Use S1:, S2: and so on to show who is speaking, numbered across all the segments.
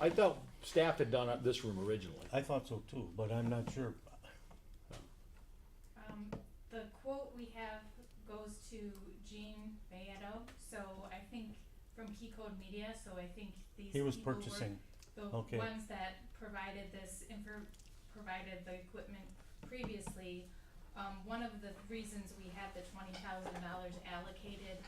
S1: I thought staff had done this room originally.
S2: I thought so too, but I'm not sure.
S3: Um, the quote we have goes to Gene Bayetto, so I think from Key Code Media, so I think these
S2: He was
S3: people were
S2: purchasing,
S3: the
S2: okay.
S3: ones that provided this infor- provided the equipment previously. Um, one of the reasons we had the twenty thousand dollars allocated,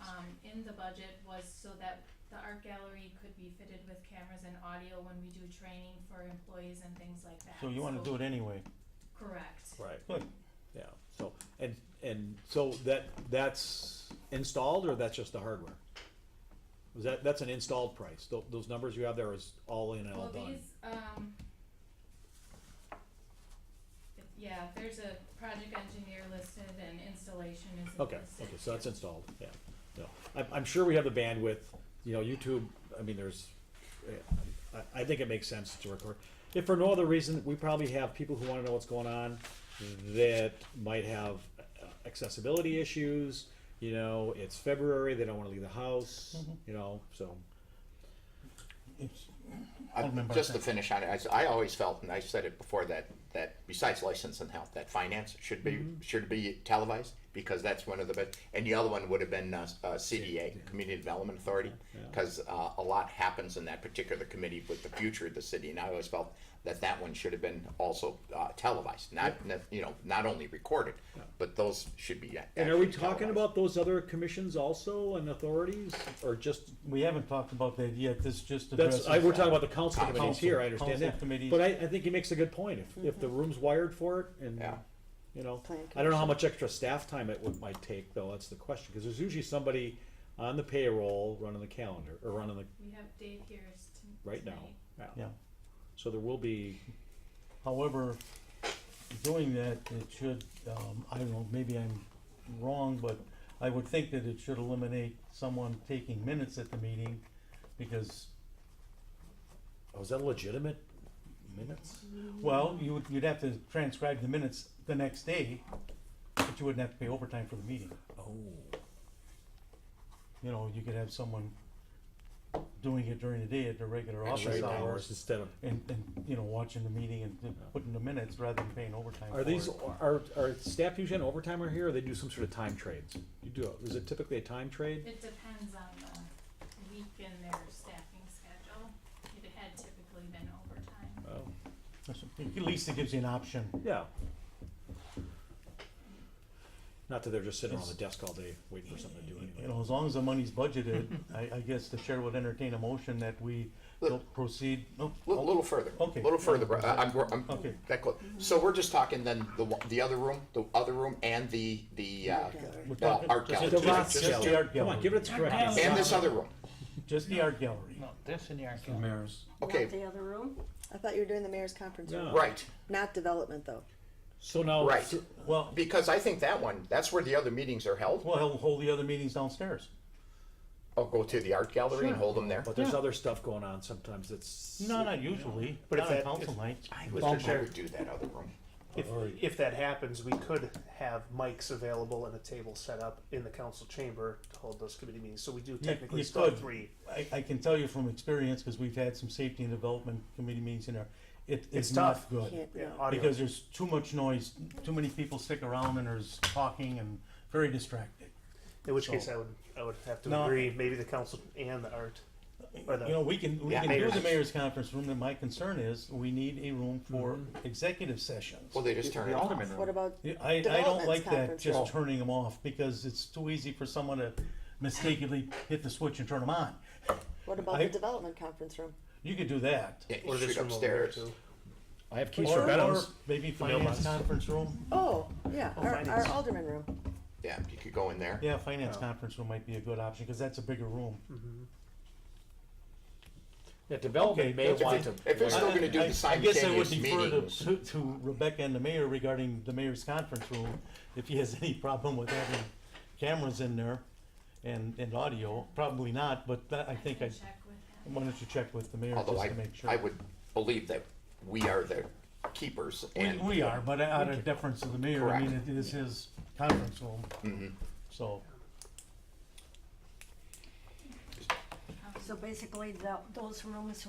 S3: um, in the budget was so that the art gallery could be fitted with cameras and audio when we do training for employees and things like that.
S2: so you wanna do it anyway.
S3: Correct.
S1: Right.
S2: Good.
S1: Yeah, so, and, and so that, that's installed or that's just the hardware? Was that, that's an installed price, Tho- those numbers you have there is all in and all
S3: Well,
S1: done?
S3: these, um, it- yeah, there's a project engineer listed and installation is
S1: Okay,
S3: listed.
S1: okay, so that's installed, yeah, no, I'm, I'm sure we have the bandwidth, you know, YouTube, I mean, there's, eh, I, I think it makes sense to record. If for no other reason, we probably have people who wanna know what's going on that might have uh, accessibility issues, you know, it's February, they don't wanna leave the house, you know, so.
S2: It's,
S4: I-
S2: Alderman
S4: Just to
S2: Barclay.
S4: finish on it, I s- I, always felt, and I said it before, that, that besides license and health, that finance should be,
S1: Mm-hmm.
S4: should be televised, because that's one of the best, and the other one would have been, uh, s- uh, CDA, Community Development Authority, because, uh, a lot happens in that particular committee with the future of the city, and I always felt that that one should have been also, uh, televised, not, not- you know, not only recorded, but those should be. a-
S1: And are we
S4: actually
S1: talking
S4: televised.
S1: about those other commissions also and authorities, or just,
S2: we haven't talked about that yet, this just addresses.
S1: that's, I, we're talking about the council committees here, I
S2: Council-
S1: understand that.
S2: council committees.
S1: But I, I think he makes a good point, if, if the room's wired for it and,
S4: Yeah.
S1: you know,
S5: Plan
S1: I don't know how much extra staff time it would, might take though, that's the question, cause there's usually somebody on the payroll running the calendar, or running the,
S3: We have Dave here s- t-
S1: right now.
S3: tonight.
S2: Yeah,
S1: So there will be,
S2: however, doing that, it should, um, I don't know, maybe I'm wrong, but I would think that it should eliminate someone taking minutes at the meeting, because,
S1: oh, is that legitimate minutes?
S2: well, you would, you'd have to transcribe the minutes the next day, but you wouldn't have to pay overtime for the meeting.
S1: Oh,
S2: you know, you could have someone doing it during the day at their regular office
S1: right, hours
S2: hours
S1: instead of
S2: and, and, you know, watching the meeting and then putting the minutes rather than paying overtime for
S1: Are these,
S2: it.
S1: are, are staff usually on overtime or here, or they do some sort of time trades? You do, is it typically a time trade?
S3: It depends on the week and their staffing schedule. It had typically been overtime.
S1: Oh,
S2: That's- At least it gives you an option.
S1: yeah. Not that they're just sitting on the desk all day waiting for something to do
S2: You
S1: anyway.
S2: know, as long as the money's budgeted, I, I guess the chair would entertain a motion that we don't proceed, no,
S4: A little, further.
S2: Oh. Okay.
S4: A little further, bro. I- I'm, we're- I'm,
S2: Okay.
S4: that close. So we're just talking then the, one- the other room, the other room and the, the, uh,
S5: gallery.
S2: We're
S4: uh,
S2: talking-
S4: art
S2: just
S4: gallery.
S2: the
S4: two different-
S2: art-
S4: just
S2: just the
S4: gallery.
S2: art
S1: Come on, give it its
S6: Our
S1: correct
S6: gallery.
S1: answer.
S4: And this other room.
S2: just the art gallery.
S6: No, this in the art gallery.
S4: Okay,
S6: Not the other room?
S5: I thought you were doing the mayor's conference room.
S1: No.
S4: right,
S5: Not development, though.
S1: So now.
S4: right.
S1: so-
S2: Well,
S4: Because I think that one, that's where the other meetings are held.
S2: well, he'll hold the other meetings downstairs.
S4: I'll go to the art gallery
S2: Sure.
S4: and hold them there.
S1: But there's other stuff going on sometimes that's.
S2: No, not usually,
S7: But if
S2: not on
S7: that-
S2: council
S7: if-
S2: night.
S4: I
S7: Mr.
S4: would, I
S7: Chair.
S4: would do that other room.
S7: If, if that happens, we could have mics available and a table set up in the council chamber to hold those committee meetings. So we do technically
S2: you
S7: still have
S2: could.
S7: three.
S2: I, I can tell you from experience, because we've had some safety and development committee meetings in there, it
S7: It's
S2: is not
S7: tough.
S2: good.
S5: Can't,
S7: Yeah,
S5: no.
S7: audio.
S2: Because there's too much noise, too many people stick around and there's talking and very distracting.
S7: in which case,
S2: so-
S7: I would I would have to
S2: No.
S7: agree. Maybe the council and the art. Or the-
S2: You know, we can, we
S4: Yeah,
S2: can do the
S7: mayor's-
S2: mayor's conference room, and my concern is, we need a room for
S7: Mm-hmm.
S2: executive sessions.
S4: Well, they just turn it
S6: The
S4: off.
S6: Alderman room.
S5: What about
S2: Yeah, I, I don't
S5: Development's
S2: like that,
S5: conference room.
S2: just turning them off, because it's too easy for someone to mistakenly hit the switch and turn them on.
S5: what about
S2: I-
S5: the development conference room?
S2: You could do that.
S4: Yeah, you
S7: or this
S4: shoot
S7: room over there
S4: upstairs.
S7: too.
S1: I have keys
S2: Or-
S1: for
S2: or
S1: Benham's.
S2: Maybe
S7: mailbox.
S2: finance conference room.
S5: Oh, yeah, our,
S7: finance.
S5: our alderman room.
S4: Yeah, you could go in there.
S2: Yeah, finance conference room might be a good option, because that's a bigger room.
S1: Yeah, development may
S2: that's
S1: want
S4: If
S1: to.
S4: it- if it's still gonna do
S2: I-
S4: the
S2: I guess I would
S4: simultaneous
S2: defer to-
S4: meetings.
S2: to, to Rebecca and the mayor regarding the mayor's conference room, if he has any problem with having cameras in there and, and audio, probably not, but that, I think I,
S3: can check with him.
S2: why don't you check with the mayor
S4: Although
S2: just
S4: I,
S2: to make sure?
S4: I would believe that we are the keepers
S2: We,
S4: and.
S2: we are, but out of deference to the mayor, I mean,
S4: Correct. Mm-hmm.
S2: it is his conference room. So,
S6: So basically, tho- those rooms